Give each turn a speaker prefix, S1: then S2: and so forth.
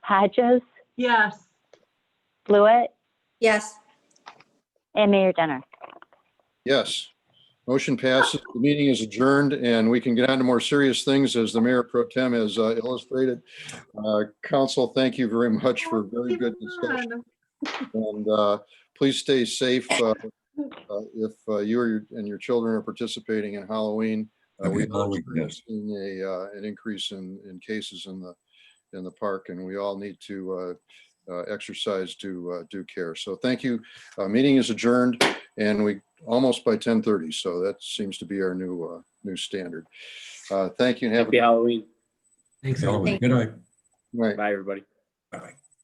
S1: Hodges,
S2: Yes.
S1: Blewett,
S3: Yes.
S1: and Mayor Denner.
S4: Yes. Motion passes. The meeting is adjourned and we can get on to more serious things as the mayor pro tem has uh, illustrated. Uh, Council, thank you very much for a very good discussion. And uh, please stay safe uh, uh, if uh, you or your- and your children are participating in Halloween. Uh,
S5: Okay,
S4: We've all
S5: Halloween, yes.
S4: experienced a, uh, an increase in, in cases in the, in the park, and we all need to uh, uh, exercise due, uh, due care. So thank you. Uh, Meeting is adjourned, and we, almost by 10:30, so that seems to be our new, uh, new standard. Uh, Thank you and have a
S6: Happy
S4: good
S6: Halloween.
S5: Thanks, Halloween. Good night.
S4: night.
S6: Bye, everybody.
S5: Bye-bye.